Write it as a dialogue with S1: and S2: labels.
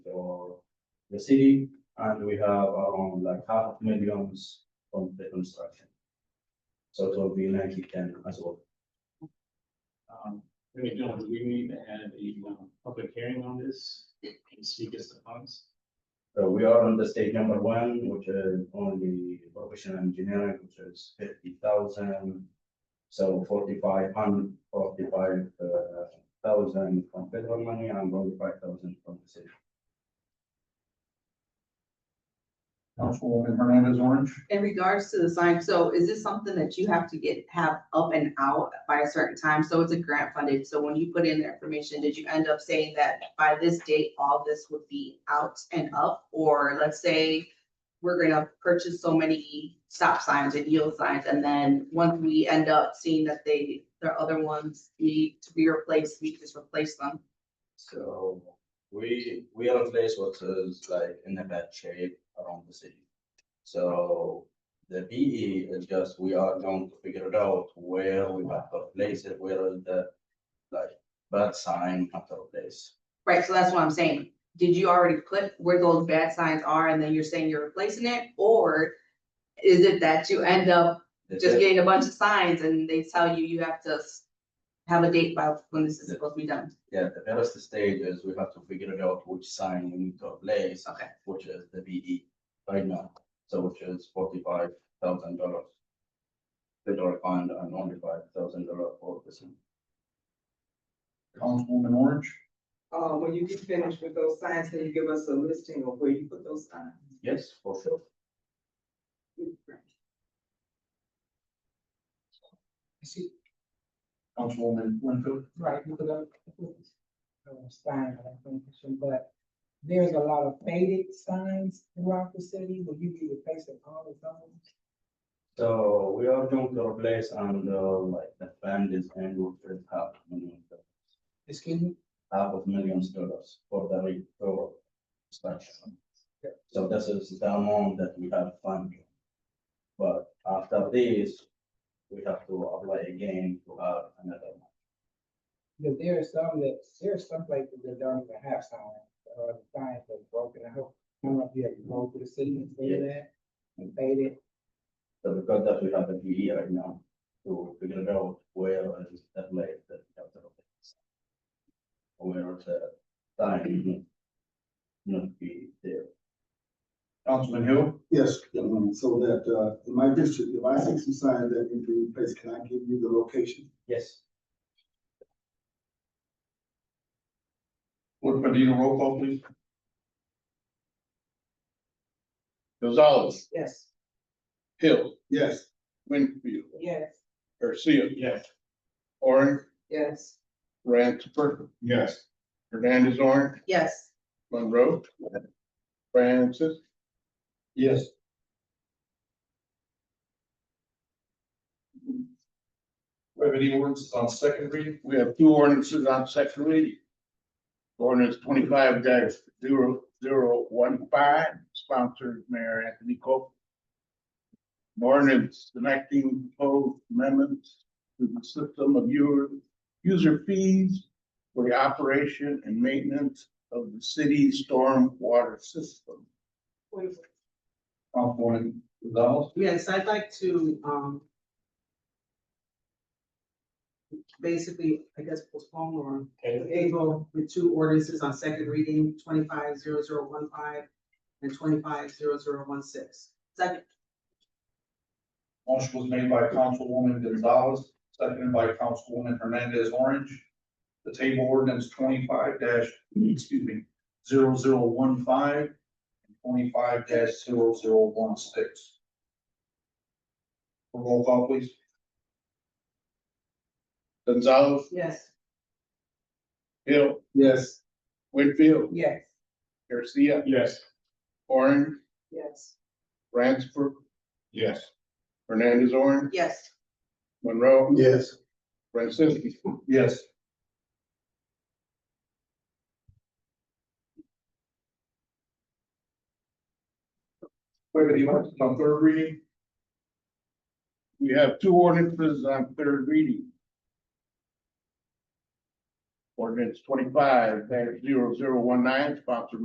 S1: the city, and we have around like half millions from the construction. So it will be ninety ten as well.
S2: Um, Attorney General, do we need to have a, um, public hearing on this, and speak as the funds.
S1: So we are on the stage number one, which is on the professional engineering, which is fifty thousand. So forty-five hundred, forty-five uh, thousand from federal money and forty-five thousand from the city.
S3: Councilwoman Hernandez Orange.
S4: In regards to the sign, so is this something that you have to get, have up and out by a certain time? So it's a grant funded, so when you put in the information, did you end up saying that by this date, all this would be out and up? Or let's say we're gonna purchase so many stop signs and yield signs, and then once we end up seeing that they, their other ones need to be replaced, we just replace them.
S1: So we, we are a place which is like in a bad shape around the city. So the BE is just, we are going to figure it out where we have to place it, where is the like bad sign have to place.
S4: Right, so that's what I'm saying. Did you already put where those bad signs are and then you're saying you're replacing it? Or is it that you end up
S1: The
S4: just
S1: third-
S4: getting a bunch of signs and they tell you you have to s- have a date by when this is supposed to be done?
S1: Yeah, the first stage is we have to figure it out which sign we need to place.
S4: Okay.
S1: Which is the BE right now, so which is forty-five thousand dollars. Federal fund and only five thousand dollars for the sign.
S3: Councilwoman Orange.
S5: Uh, when you get finished with those signs, can you give us a listing of where you put those signs?
S1: Yes, for sure.
S3: Councilwoman Winfield.
S6: Right, because I, I was fine, I don't think, but there's a lot of faded signs throughout the city, will you be replacing all of those?
S1: So we are going to replace and uh, like the fund is and we will half million, do-
S6: Excuse me?
S1: half of millions dollars for the re- for expansion. So this is the amount that we have funded. But after this, we have to apply again to have another. one.
S6: Because there are some that, there are some places that don't even have signs, or the signs are broken, I hope, I don't know if you have rolled through the city and see that, and faded,
S1: So because that we have a PE right now to figure it out where is the place that we have to replace. Where the time not be there.
S3: Councilman Hill.
S7: Yes, um, so that, uh, in my district, if I see some signs that need to be replaced, can I give you the location?
S1: Yes.
S3: Clerk Medina, roll call please.
S8: Gonzalez,
S6: yes,
S8: Hill,
S7: Yes,
S8: Winfield,
S6: yes,
S8: Garcia,
S2: Yes.
S8: Orange,
S5: Yes.
S8: Ransford,
S3: Yes.
S8: Hernandez Orange,
S4: Yes,
S8: Monroe, Francis,
S3: Yes. We have any ordinances on second reading?
S8: we have two ordinances on second reading. Ordinance twenty-five dash zero zero one five, sponsored Mayor Anthony Cope. An Ordinance enacting proposed amendments to the system of your user fees for the operation and maintenance of the city's stormwater system.
S3: Councilwoman Gonzalez.
S6: Yes, I'd like to, um. Basically, I guess postpone or table the two ordinances on second reading, twenty-five zero zero one five and twenty-five zero zero one six.
S4: second,
S3: Motion was made by Councilwoman Gonzalez, seconded by Councilwoman Hernandez Orange. The table ordinance twenty-five dash, excuse me, zero zero one five and twenty-five dash zero zero one six. Roll call please.
S8: Gonzalez,
S6: Yes.
S8: Hill,
S7: yes.
S8: Winfield,
S6: Yes.
S8: Garcia,
S2: Yes.
S8: Orange,
S6: Yes.
S8: Ransford,
S2: Yes.
S8: Hernandez Orange,
S4: yes.
S8: Monroe,
S7: Yes.
S8: Francisco.
S3: Yes. Wait, but you want it on third reading?
S8: We have two ordinances on third reading. Ordinance twenty-five 19 sponsored